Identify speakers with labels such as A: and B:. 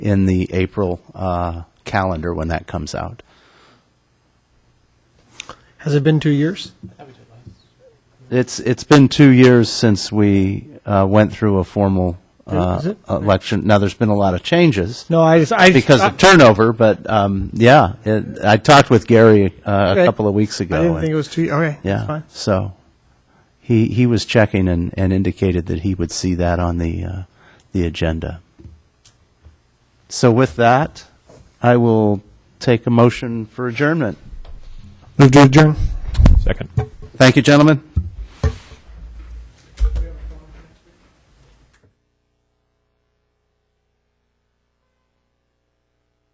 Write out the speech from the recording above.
A: in the April uh, calendar when that comes out.
B: Has it been two years?
A: It's it's been two years since we uh, went through a formal uh,
B: Is it?
A: election. Now there's been a lot of changes
B: No, I just, I just-
A: because of turnover, but um, yeah, it, I talked with Gary uh, a
B: Okay.
A: couple of weeks ago.
B: I didn't
A: and-
B: think it was two. Okay, that's
A: yeah,
B: fine.
A: so he he was checking and, and indicated that he would see that on the uh, the agenda. So with that, I will take a motion for adjournment.
B: Move to adjourn.
C: Second.
A: Thank you, gentlemen.